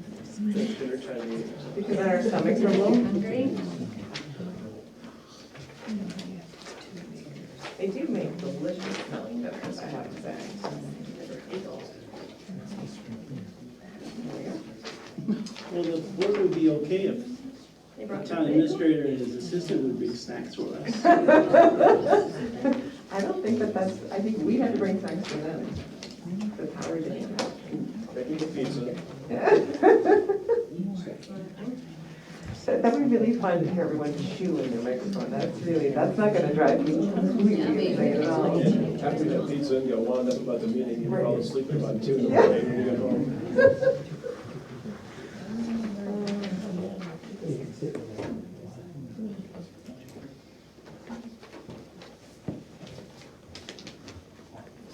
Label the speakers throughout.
Speaker 1: at dinner time meeting.
Speaker 2: Because our stomachs are a little hungry. They do make delicious smelling dinners, I have to say.
Speaker 3: Well, the board would be okay if the town administrator and his assistant would bring snacks for us.
Speaker 2: I don't think that that's, I think we had to bring snacks to them. That's how we're doing it.
Speaker 1: Making the pizza.
Speaker 2: That that would be really fun to hear everyone chew in the microphone. That's really, that's not gonna drive you completely insane at all.
Speaker 1: And after you have pizza and go wound up about the meeting, you fall asleep at about two in the morning when you get home.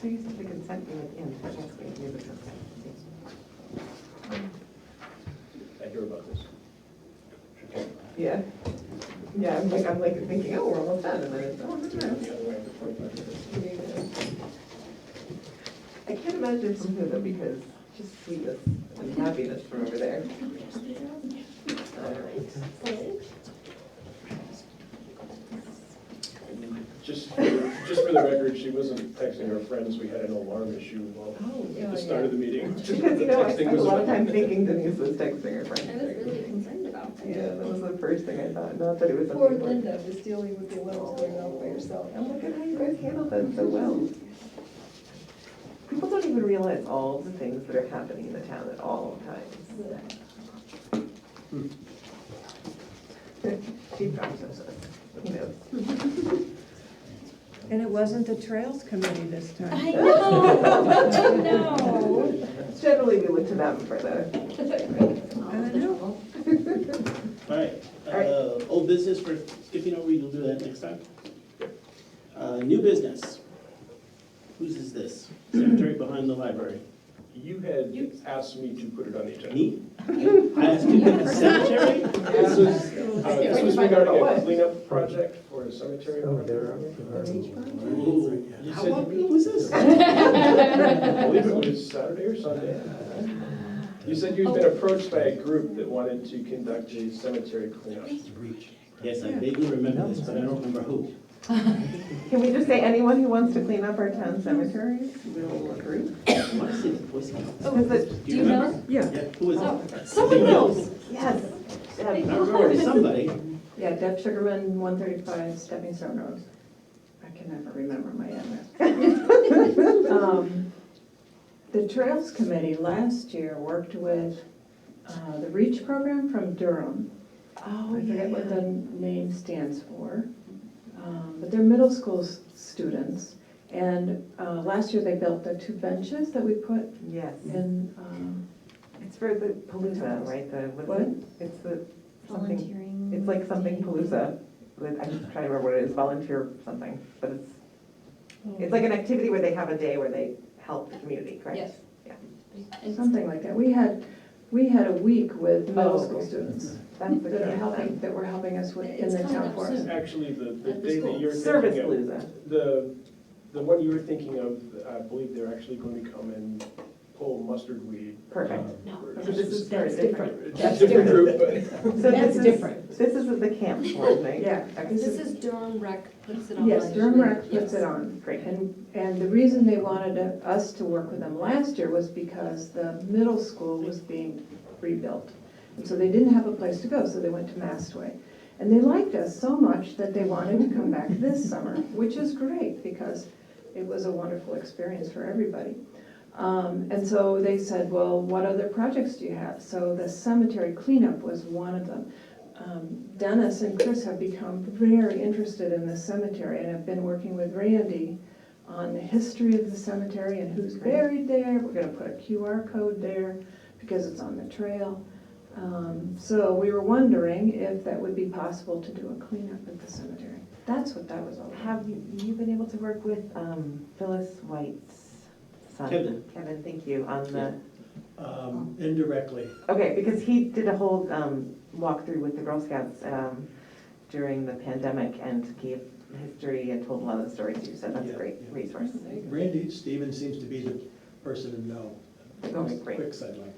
Speaker 2: So you said the consent being at the end, but that's what you do with consent.
Speaker 1: I hear about this.
Speaker 2: Yeah. Yeah, I'm like, I'm like thinking, oh, we're almost done, and then it's, oh, no, no.
Speaker 1: The other way for 25 minutes.
Speaker 2: I can't imagine from who though, because just sweetness and happiness from over there. Uh,
Speaker 1: Just, for- just for the record, she wasn't texting her friends. We had an alarm issue while
Speaker 2: Oh,
Speaker 1: at the start of the meeting.
Speaker 2: Because, you
Speaker 1: The
Speaker 2: know, I
Speaker 1: texting
Speaker 2: spent a
Speaker 1: was
Speaker 2: lot of
Speaker 1: about-
Speaker 2: time thinking Denise was texting her
Speaker 4: I was
Speaker 2: friend.
Speaker 4: really concerned about that.
Speaker 2: Yeah, that was the first thing I thought, not that it was.
Speaker 5: Poor
Speaker 2: something-
Speaker 5: Linda was dealing with the alarms going off by herself.
Speaker 2: Oh, look at how you guys handled that so well. People don't even realize all the things that are happening in the town at all times. Hmm. She probably knows us, who knows?
Speaker 6: And it wasn't the Trails Committee this time.
Speaker 4: I know,
Speaker 2: Generally, we look to them for the,
Speaker 6: I know.
Speaker 3: All right, uh, old business, we're skipping over, you'll do that next time. Uh, new business. Whose is this? Secretary behind the library.
Speaker 1: You had asked me to put it on the agenda.
Speaker 3: Me? I asked you, the secretary?
Speaker 1: This was, uh, this was
Speaker 2: Yeah.
Speaker 1: regarding
Speaker 2: What?
Speaker 1: a cleanup project for a cemetery. over there.
Speaker 3: Ooh,
Speaker 1: You
Speaker 3: How
Speaker 1: said-
Speaker 3: long ago was this?
Speaker 1: I believe it was Saturday or Sunday. You said you'd been approached by a group that wanted to conduct a cemetery cleanup.
Speaker 3: Yes, I vaguely remember this, but I don't remember who.
Speaker 2: can we just say anyone who wants to clean up our town cemeteries will agree?
Speaker 3: I want to say the Boy Scouts.
Speaker 2: Is it-
Speaker 3: Do you remember?
Speaker 6: Yeah.
Speaker 3: Yeah, who was
Speaker 4: Oh,
Speaker 3: it?
Speaker 4: someone knows.
Speaker 2: Yes.
Speaker 3: I
Speaker 2: Deb.
Speaker 3: remember it was somebody.
Speaker 5: Yeah, Deb Sugarman, one thirty-five Stepping Stone Road. I can never remember my address. Um, The Trails Committee last year worked with uh, the REACH program from Durham.
Speaker 2: Oh,
Speaker 5: I forget what the
Speaker 2: yeah.
Speaker 5: name stands for, um, but they're middle school s- students. And uh, last year, they built the two benches that we put
Speaker 2: Yes.
Speaker 5: in, um,
Speaker 2: It's for the Palooza, right, the, what's
Speaker 5: What?
Speaker 2: it? It's the, something,
Speaker 4: Volunteering.
Speaker 2: it's like something Palooza. Like, I'm just trying to remember what it is, volunteer something, but it's,
Speaker 4: Mm.
Speaker 2: it's like an activity where they have a day where they help the community, correct?
Speaker 4: Yes.
Speaker 2: Yeah.
Speaker 4: And
Speaker 5: something like that. We had, we had a week with
Speaker 2: Oh,
Speaker 5: middle
Speaker 2: okay.
Speaker 5: school students
Speaker 2: That's the
Speaker 5: that are
Speaker 2: kind
Speaker 5: helping, that were helping us with, in
Speaker 4: Mm-hmm. It's
Speaker 5: the
Speaker 4: coming
Speaker 5: town
Speaker 4: up
Speaker 5: forest.
Speaker 4: soon.
Speaker 1: Actually, the, the
Speaker 4: At the
Speaker 1: day that
Speaker 4: school.
Speaker 1: you're
Speaker 2: of service
Speaker 1: thinking of,
Speaker 2: Palooza.
Speaker 1: the, the one you were thinking of, I believe they're actually going to come and pull mustard weed.
Speaker 2: Perfect.
Speaker 1: uh,
Speaker 4: No.
Speaker 1: for-
Speaker 2: So this is very
Speaker 5: That's
Speaker 2: different.
Speaker 1: It's a
Speaker 4: That's
Speaker 1: different group,
Speaker 2: So
Speaker 1: but
Speaker 2: this
Speaker 4: That's
Speaker 2: is-
Speaker 4: different.
Speaker 2: This is the camp one, right?
Speaker 5: Yeah.
Speaker 2: Okay.
Speaker 4: This is Durham Rec puts it on.
Speaker 5: Yes, Durham
Speaker 4: usually.
Speaker 5: Rec puts
Speaker 4: Yes.
Speaker 5: it on.
Speaker 2: Great.
Speaker 5: And, and the reason they wanted to- us to work with them last year was because the middle school was being rebuilt. And so they didn't have a place to go, so they went to Mastway. And they liked us so much that they wanted to come back this summer, which is great because it was a wonderful experience for everybody. Um, And so they said, well, what other projects do you have? So the cemetery cleanup was one of them. Um, Dennis and Chris have become very interested in the cemetery and have been working with Randy on the history of the cemetery and who's buried there. We're gonna put a QR code there because it's on the trail. Um, So we were wondering if that would be possible to do a cleanup at the cemetery. That's what that was all about.
Speaker 2: Have you, you been able to work with um, Phyllis White's son?
Speaker 3: Kevin.
Speaker 2: Kevin, thank you, on the,
Speaker 7: Um, indirectly.
Speaker 2: okay, because he did a whole um, walkthrough with the Girl Scouts um, during the pandemic and gave history and told a lot of the stories you said, that's a
Speaker 7: Yeah,
Speaker 2: great
Speaker 7: yeah.
Speaker 2: resource.
Speaker 7: Randy Stevens seems to be the person to know.
Speaker 2: Okay, great.
Speaker 7: Quick sideline.